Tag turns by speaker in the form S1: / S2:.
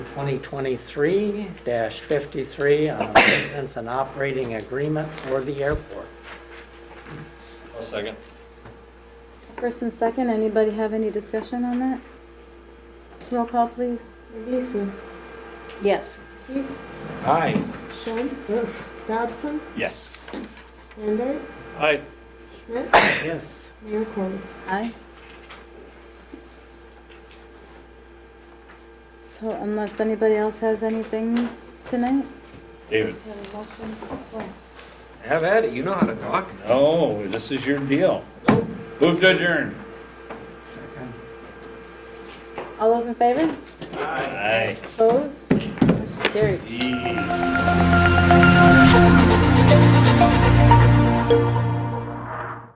S1: 2023-53 on maintenance and operating agreement for the airport.
S2: I'll second.
S3: First and second, anybody have any discussion on that? Roll call, please.
S4: Beasley,
S3: Yes.
S4: Keeps,
S2: Aye.
S4: Shen, Dodson,
S2: Yes.
S4: Lambert,
S2: Aye.
S4: Schmidt,
S1: Yes.
S4: Mayor Corbin.
S3: Aye. So unless anybody else has anything tonight?
S2: David.
S5: Have at it. You know how to talk.
S2: Oh, this is your deal. Move to adjourn.
S3: All those in favor?
S2: Aye.
S3: Opposed? Motion Carries.
S2: Yee.